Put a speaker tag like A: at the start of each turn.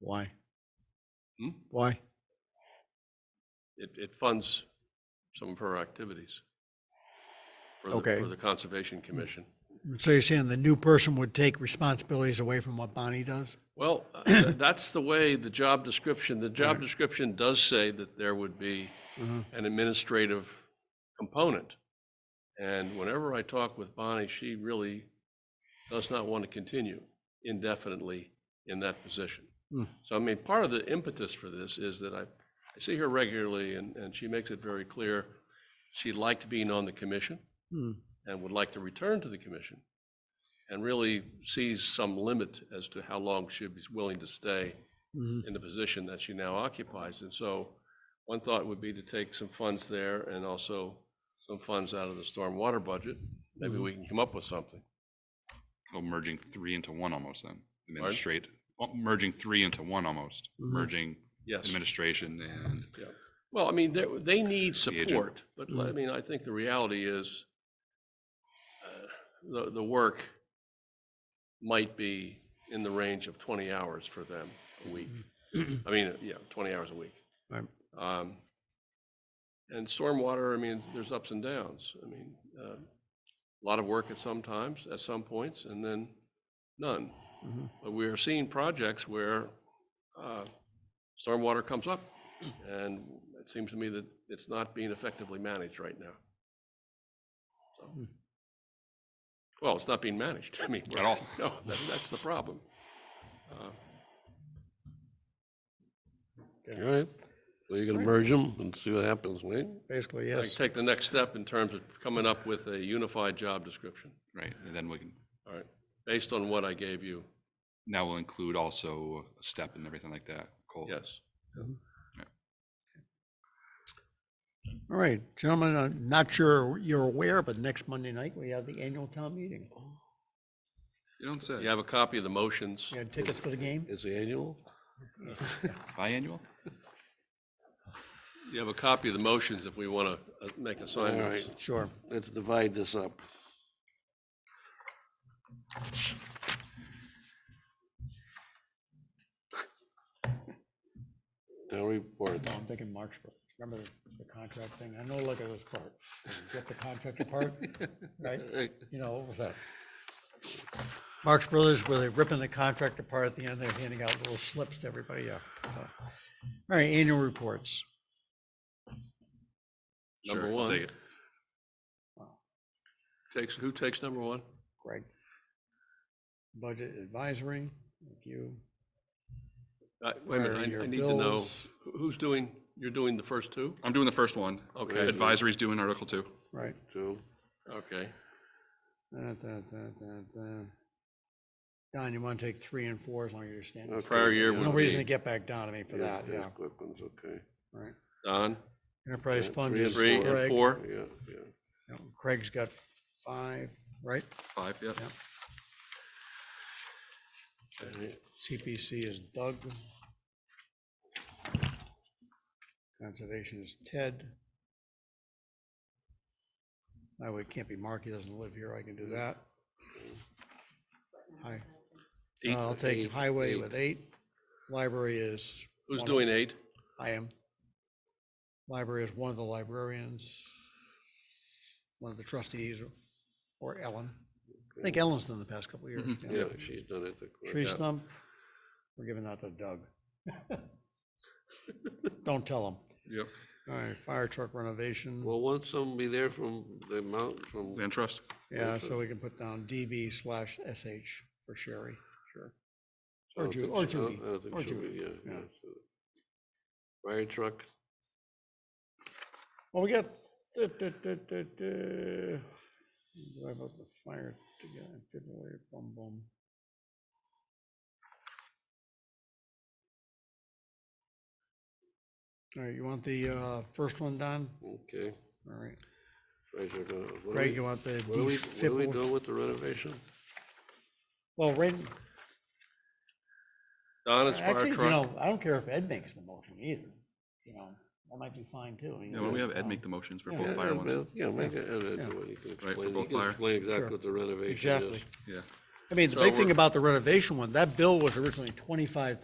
A: Why?
B: Hmm?
A: Why?
B: It, it funds some of her activities. for the-
A: Okay.
B: For the Conservation Commission.
A: So you're saying the new person would take responsibilities away from what Bonnie does?
B: Well, uh, that's the way the job description, the job description does say that there would be
A: Uh-huh.
B: an administrative component. And whenever I talk with Bonnie, she really does not want to continue indefinitely in that position.
A: Hmm.
B: So I mean, part of the impetus for this is that I, I see her regularly and, and she makes it very clear she liked being on the commission
A: Hmm.
B: and would like to return to the commission and really sees some limit as to how long she'd be willing to stay
A: Mhm.
B: in the position that she now occupies. And so one thought would be to take some funds there and also some funds out of the stormwater budget. Maybe we can come up with something.
C: Well, Oh, merging three into one almost then. Administrate,
B: Administrate-
C: merging three into one almost,
A: Mhm.
C: merging
B: Yes.
C: administration and.
B: Well, I mean, they, they need
C: agent. Mm-hmm.
B: support, but l- I
A: Mhm.
B: mean, I think the reality is uh, the, the work might be in the range of 20 hours for them a week.
C: Mm-hmm.
B: I mean, yeah, 20 hours a week.
A: Right.
B: Um, And stormwater, I mean, there's ups and downs. I mean, uh, a lot of work at some times, at some points, and then none.
D: Mm-hmm.
A: Mhm.
B: But we are seeing projects where uh, stormwater comes up, and it seems to me that it's not being effectively managed right now. So-
A: Hmm.
B: Well, it's not being managed, I mean.
C: At all.
B: No, that- that's the problem. Uh,
D: All right, so you're gonna merge them and see what happens, Wayne?
A: Basically,
B: I
A: yes.
B: can take the next step in terms of coming up with a unified job description,
C: Right, and then we can,
B: all right, based on what I gave you,
C: now we'll include also a step and everything like that, Cole.
B: yes.
A: All right, gentlemen, I'm not sure you're aware, but next Monday night, we have the annual town meeting.
C: You don't say.
B: You have a copy of the motions?
A: You had tickets for the game?
D: It's annual?
C: Biannual?
B: You have a copy of the motions if we want to make assignments.
D: right.
A: Sure.
D: Let's divide this up. Town report,
A: No, I'm thinking March, but remember the, the contract thing? I know, look at this part. Get the contract apart, right?
D: Right,
A: You know, what was that? Marx Brothers, where they're ripping the contract apart at the end, they're handing out little slips to everybody, yeah. so. All right, annual reports.
B: Number
C: Sure, I'll
B: one.
C: take it.
B: Takes, who takes number one?
A: Greg. Budget advisory, thank you.
B: Uh, Wait
A: Where
B: a
A: are
B: minute, I-
A: your
B: I need to know,
A: bills?
B: who- who's doing, you're doing the first two?
C: I'm doing the first one.
B: Okay,
C: Advisory's doing Article Two.
A: Right.
D: two,
B: okay.
A: Da, da, da, da, da. Don, you want to take three and four as long as you're standing?
D: Okay.
B: Prior year
A: No
B: would
A: reason to
B: be
A: get back down to me for
D: yeah,
A: that,
D: yeah,
A: yeah,
D: quick ones, okay.
A: right.
B: Don,
A: Enterprise
D: Yeah,
A: fund
D: three
A: is
D: and
B: three and
A: Craig.
B: four.
D: Yeah, yeah.
A: Craig's got five, right?
C: Five, yeah.
A: Yeah. CPC is Doug. Conservation is Ted. Highway can't be Mark, he doesn't live here, I can do that. Hi,
B: Eight.
A: I'll take
D: eight,
A: highway
D: eight.
A: with eight. Library is,
B: Who's
A: one.
B: doing eight?
A: I am. Library is one of the librarians, one of the trustees, or Ellen. I think Ellen's done the past couple of years. yeah.
D: Yeah, she's done it. of course.
A: Tree
B: Yeah.
A: stump, we're giving that to Doug. Don't tell him.
B: Yep.
A: All right, fire truck renovation,
D: Well, won't someone be there from the mountain, from,
C: Land Trust.
A: yeah,
D: okay.
A: so we can put down DB slash SH for Sherry, sure.
D: I
A: Or
D: don't
A: Ju-
D: think
A: or
D: she- I don't-
A: Judy,
D: I don't think
A: or
D: she'll be,
A: Judy,
D: yeah,
A: yeah.
D: yeah, so. Fire truck,
A: Well, we got. duh, duh, duh, duh, duh. Drive up the fire to get it, defibrillator, bum bum. All right, you want the uh, first one, Don?
D: okay.
A: All right,
D: Fire truck, uh, what do
A: Greg,
D: we-
A: you want the
D: What do we, what do we
A: defibrillator?
D: do with the renovation?
A: Well, right,
B: Don is
A: actually,
B: fire
A: you
B: truck.
A: know, I don't care if Ed makes the motion either, you know, that might be fine too. I mean,
C: Yeah, why don't we have Ed
A: um,
C: make the motions for
A: Yeah.
C: both
D: Yeah,
C: fire
D: yeah,
C: ones?
D: Bill, Yeah, make it, uh, Ed, Ed,
A: Yeah.
D: do it, he can
C: for
D: explain, he
C: both
D: can
C: fire.
D: explain exactly
A: Sure.
D: what the renovation is.
A: Exactly.
C: Yeah.
A: I mean, the
B: So
A: big thing
B: we're-
A: about the renovation one, that bill was originally twenty-five